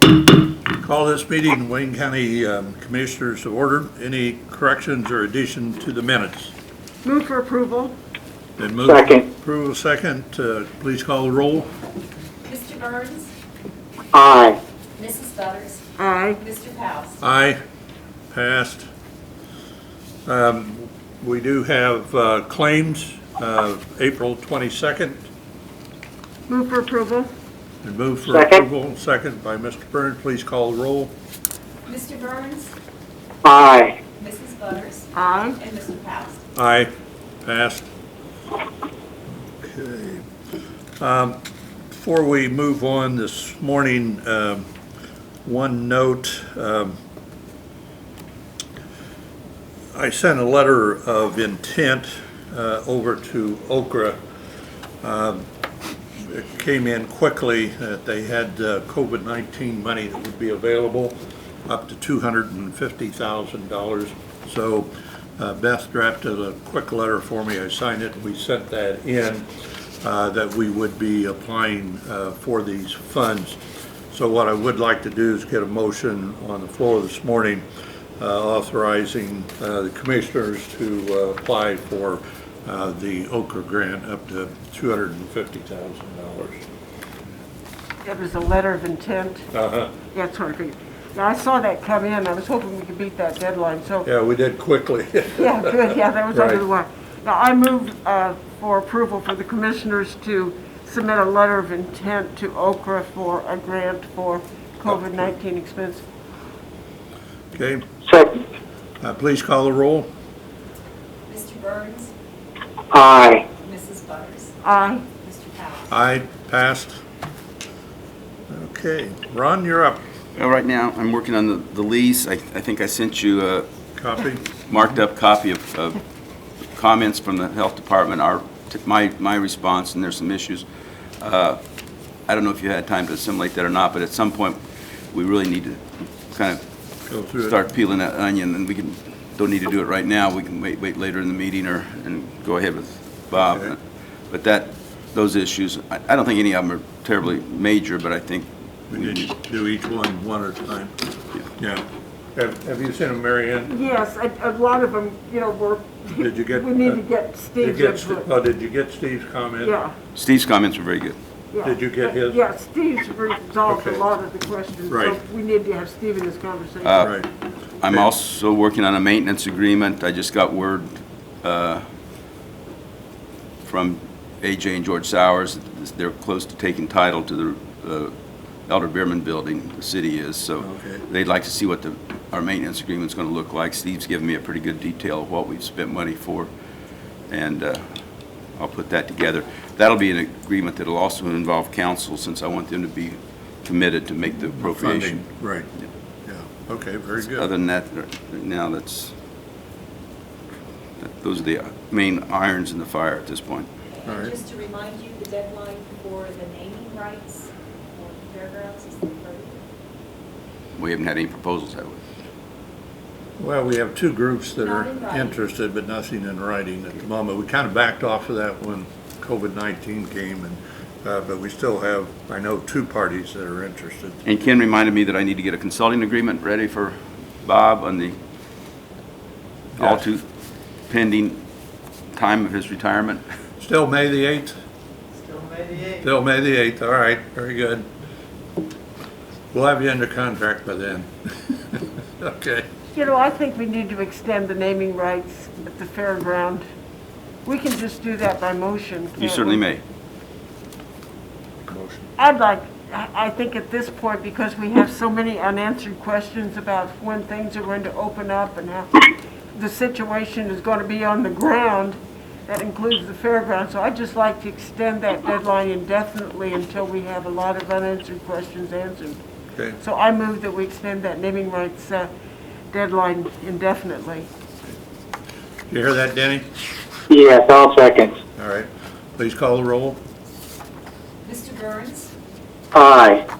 Call this meeting, Wayne County um, Commissioners to order. Any corrections or addition to the minutes? Move for approval. Then move. Second. Approval second. Uh, Please call the roll. Mr. Burns, Aye. Mrs. Butters, Aye. Mr. Powell. Aye. Passed. Um, We do have uh, claims of April 22nd. Move for approval. And move for Second. approval. Second by Mr. Burns. Please call the roll. Mr. Burns, Aye. Mrs. Butters, Aye. and Mr. Powell. Aye, passed. Okay. Um, Before we move on this morning, um, one note. um, I sent a letter of intent uh, over to Okra. Um, It came in quickly that they had uh, COVID-19 money that would be available, up to $250,000. So uh, Beth drafted a quick letter for me. I signed it, and we sent that in, uh, that we would be applying uh, for these funds. So what I would like to do is get a motion on the floor this morning uh, authorizing uh, the commissioners to uh, apply for uh, the Okra grant up to $250,000. It was a letter of intent. Uh-huh. Yeah, it's hard to read. Yeah, I saw that come in. I was hoping we could beat that deadline, so, Yeah, we did quickly. yeah, good, yeah, that was under the Right. wire. Now, I move uh, for approval for the commissioners to submit a letter of intent to Okra for a grant for COVID-19 expense. Okay, Second. uh, please call the roll. Mr. Burns, Aye. Mrs. Butters, Aye. Mr. Powell. Aye, passed. Okay, Ron, you're up. Well, Right now, I'm working on the the lease. I I think I sent you a Copy. marked-up copy of of comments from the Health Department, our, my my response, and there's some issues. Uh, I don't know if you had time to assimilate that or not, but at some point, we really need to kind of Go through it. start peeling that onion, and we can, don't need to do it right now. We can wait, wait later in the meeting or, and go ahead with Okay. Bob. But that, those issues, I I don't think any of them are terribly major, but I think We did do each one, one at a time. Yeah. Have, have you seen them, Mary Ann? Yes, a a lot of them, you know, were, we Did you get? need to uh, get did you Steve's get Ste- input. Oh, did you get Steve's comment? Yeah. Steve's comments were very good. Yeah. Did you get his? Yeah, Steve's resolved a Okay. lot of the questions, so Right. Uh. we need to have Steve in this conversation. Right, I'm Okay. also working on a maintenance agreement. I just got word uh, from AJ and George Sowers. that They're close to taking title to the uh, Elder Beerman Building, the city is, so Okay. they'd like to see what the, our maintenance agreement's going to look like. Steve's given me a pretty good detail of what we've spent money for, and uh, I'll put that together. That'll be an agreement that'll also involve council, since I want them to be committed to make the appropriation. funding, right. Yeah, okay, very Other good. than that, right now, that's, that- those are the main irons in the fire at this point. All right. And just to remind you, the deadline for the naming rights for the fairgrounds is the 30th. We haven't had any proposals, have we? Well, we have two groups that are Not in writing. interested, but nothing in writing at the moment. We kind of backed off of that when COVID-19 came, and, uh, but we still have, I know, two parties that are interested. And Ken reminded me that I need to get a consulting agreement ready for Bob on the all Yes. too pending time of his retirement. Still May the 8th? Still May the 8th. Still May the 8th, all right, very good. We'll have you under contract by then. Okay. You know, I think we need to extend the naming rights at the fairground. We can just do that by motion. You can't certainly we? may. Motion. I'd like, I I think at this point, because we have so many unanswered questions about when things are going to open up and how the situation is going to be on the ground, that includes the fairground, so I'd just like to extend that deadline indefinitely until we have a lot of unanswered questions answered. Okay, So I move that we extend that naming rights uh, deadline indefinitely. you hear that, Denny? Yes, all seconds. All right, please call the roll. Mr. Burns, Aye.